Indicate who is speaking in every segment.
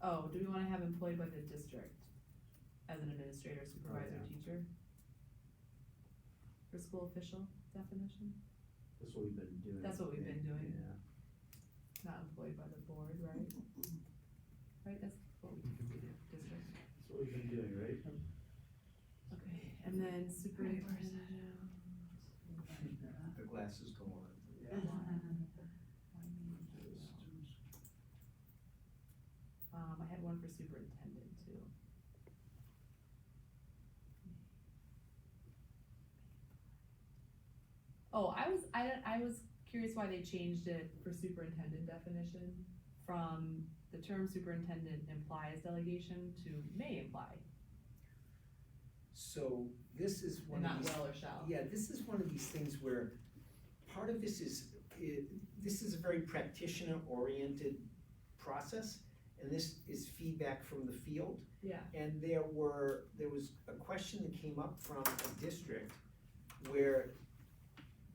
Speaker 1: Oh, do we wanna have employed by the district as an administrator, supervisor,
Speaker 2: yeah.
Speaker 1: teacher? For school official definition,
Speaker 2: That's what we've been doing.
Speaker 1: That's what we've been doing.
Speaker 2: Yeah.
Speaker 1: not employed by the board, right? Right, that's what we do, district,
Speaker 2: That's what we've been doing, right?
Speaker 1: okay, and then superintendent.
Speaker 3: The glasses go on.
Speaker 1: Um, I had one for superintendent too. Oh, I was, I, I was curious why they changed it for superintendent definition from the term superintendent implies delegation to may imply,
Speaker 3: So this is
Speaker 1: and
Speaker 3: one
Speaker 1: not
Speaker 3: of these,
Speaker 1: will or shall.
Speaker 3: yeah, this is one of these things where part of this is, i- this is a very practitioner-oriented process, and this is feedback from the field.
Speaker 1: Yeah,
Speaker 3: And there were, there was a question that came up from a district where,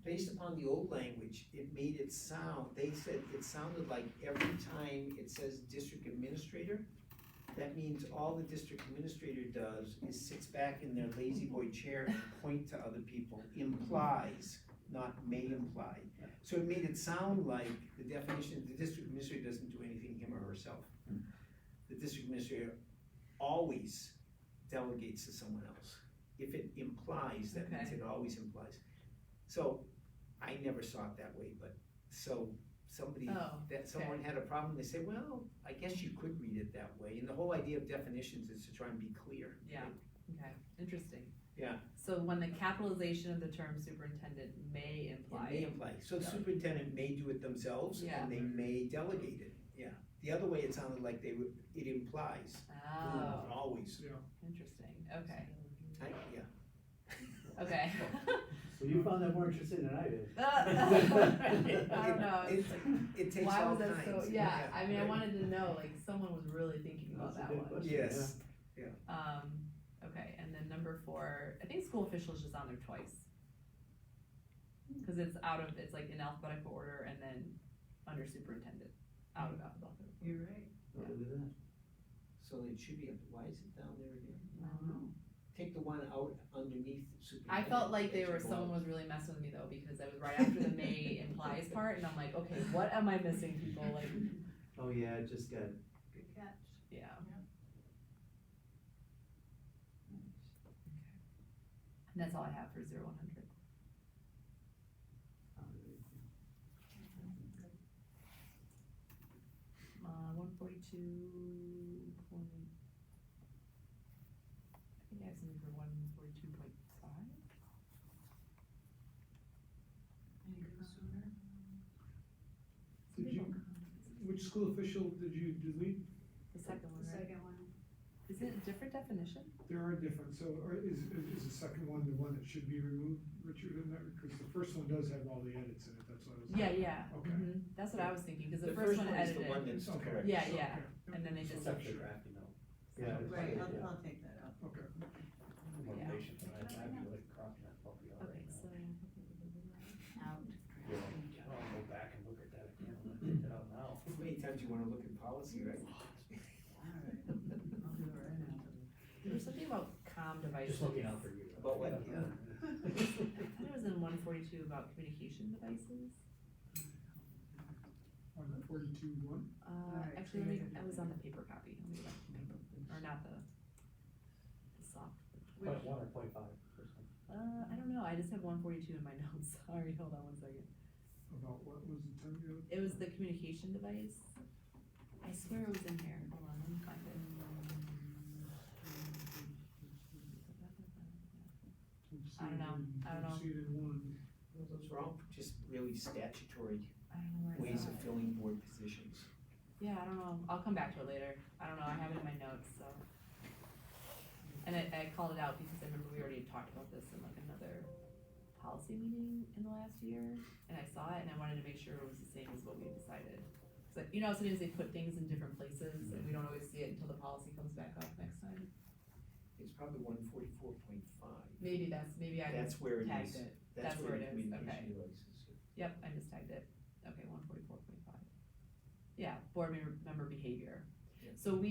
Speaker 3: based upon the old language, it made it sound, they said it sounded like every time it says district administrator, that means all the district administrator does is sits back in their lazy boy chair and point to other people, implies, not may imply. So it made it sound like the definition, the district administrator doesn't do anything him or herself. The district administrator always delegates to someone else. If it implies, that means
Speaker 1: Okay.
Speaker 3: it always implies. So, I never saw it that way, but, so, somebody,
Speaker 1: Oh,
Speaker 3: that, someone had a problem, they said, well, I guess you could read it that way, and the whole idea of definitions is to try and be clear.
Speaker 1: Yeah. okay, interesting.
Speaker 3: Yeah.
Speaker 1: So when the capitalization of the term superintendent may
Speaker 3: It
Speaker 1: imply,
Speaker 3: may imply, so the
Speaker 1: Yeah.
Speaker 3: superintendent may do it themselves,
Speaker 1: Yeah.
Speaker 3: and they may delegate it, yeah. The other way, it sounded like they would, it implies, Ooh,
Speaker 1: oh,
Speaker 3: always,
Speaker 1: interesting, okay,
Speaker 3: I, yeah.
Speaker 1: okay.
Speaker 2: Well, you found that more interesting than I did.
Speaker 1: I don't know, it's like,
Speaker 3: It takes
Speaker 1: why
Speaker 3: all
Speaker 1: was
Speaker 3: kinds.
Speaker 1: that so, yeah, I mean, I
Speaker 3: right.
Speaker 1: wanted to know, like, someone was really thinking about
Speaker 2: That's a
Speaker 1: that
Speaker 2: good
Speaker 1: one.
Speaker 2: question.
Speaker 3: Yes,
Speaker 1: Um, okay, and then number four, I think school officials just on there twice.
Speaker 4: Hmm.
Speaker 1: Cause it's out of, it's like in alphabetical order and then under superintendent, out of alphabetical.
Speaker 4: You're right.
Speaker 2: Oh, look at that.
Speaker 3: so it should be, up. why is it down there again?
Speaker 4: I don't know.
Speaker 3: Take the one out underneath
Speaker 1: I
Speaker 3: superintendent.
Speaker 1: felt like they
Speaker 3: that
Speaker 1: were,
Speaker 3: should go
Speaker 1: someone
Speaker 3: up.
Speaker 1: was really messing with me though, because I was right after the May implies part and I'm like, okay, what am I missing, people, like,
Speaker 2: Oh, yeah, it just got,
Speaker 4: Good catch.
Speaker 1: yeah. And that's all I have for zero one hundred.
Speaker 3: um,
Speaker 1: Uh, one forty-two point. I think I have something for one forty-two point five.
Speaker 4: Any good sooner?
Speaker 5: Did you, which school official did you delete?
Speaker 1: The second one,
Speaker 4: The
Speaker 1: right?
Speaker 4: second one.
Speaker 1: Is it a different definition?
Speaker 5: There are different, so or is, is the second one the one that should be removed, Richard, in that, because the first one does have all the edits in it, that's why I was.
Speaker 1: Yeah, yeah.
Speaker 5: Okay.
Speaker 1: Mhm. That's what I was thinking, because the
Speaker 3: The
Speaker 1: first one
Speaker 3: is the one
Speaker 1: edited.
Speaker 3: that's
Speaker 5: It's okay.
Speaker 3: correct.
Speaker 1: Yeah,
Speaker 5: so,
Speaker 1: yeah,
Speaker 5: okay, yep,
Speaker 1: and then they
Speaker 5: so
Speaker 1: just-
Speaker 5: I'm
Speaker 2: Except for
Speaker 5: sure.
Speaker 2: drafting though. Yeah. it's
Speaker 4: Right,
Speaker 2: fine, yeah.
Speaker 4: I'll, I'll take that out.
Speaker 5: Okay.
Speaker 2: Motivation, but I'd have you like cropping that puppy out
Speaker 1: Okay,
Speaker 2: right now.
Speaker 1: so.
Speaker 4: Out.
Speaker 2: Yeah. I'll go back and look at that again, when I take that out now.
Speaker 3: How many times you wanna look at policy, right?
Speaker 4: Alright, I'll do it right now.
Speaker 1: There was something about comm devices.
Speaker 2: Just looking out for you.
Speaker 3: About what?
Speaker 1: I thought it was in one forty-two about communication devices.
Speaker 5: On the forty-two one,
Speaker 1: Uh,
Speaker 4: Alright,
Speaker 1: actually,
Speaker 4: so
Speaker 1: let me,
Speaker 4: you're gonna
Speaker 1: I
Speaker 4: do
Speaker 1: was
Speaker 4: it.
Speaker 1: on the paper copy, let me go back to the paper, or not the, the soft.
Speaker 2: Point one or point five? or something.
Speaker 1: Uh, I don't know, I just have one forty-two in my notes, sorry, hold on one second.
Speaker 5: about what was the term you
Speaker 1: It was the communication device. I swear it was in here, hold on, let me find it. I don't know. I don't know.
Speaker 5: See it in one,
Speaker 3: Well, Those are all just really statutory
Speaker 1: I don't know where it's
Speaker 3: ways of
Speaker 1: at.
Speaker 3: filling board positions.
Speaker 1: Yeah, I don't know, I'll come back to it later, I don't know, I have it in my notes, so. And I, I called it out because I remember we already had talked about this in like another policy meeting in the last year, and I saw it and I wanted to make sure it was the same as what we decided. So, you know, how sometimes they put things in different places and we don't always see it until the policy comes back up next time,
Speaker 3: It's probably one forty-four point five.
Speaker 1: maybe that's, maybe I
Speaker 3: That's where it
Speaker 1: tagged it,
Speaker 3: is.
Speaker 1: that's where it
Speaker 3: the
Speaker 1: is,
Speaker 3: communication
Speaker 1: okay.
Speaker 3: devices is.
Speaker 1: yep, I just tagged it, okay, one forty-four point five. Yeah, board member, member behavior,
Speaker 3: Yeah.
Speaker 1: so we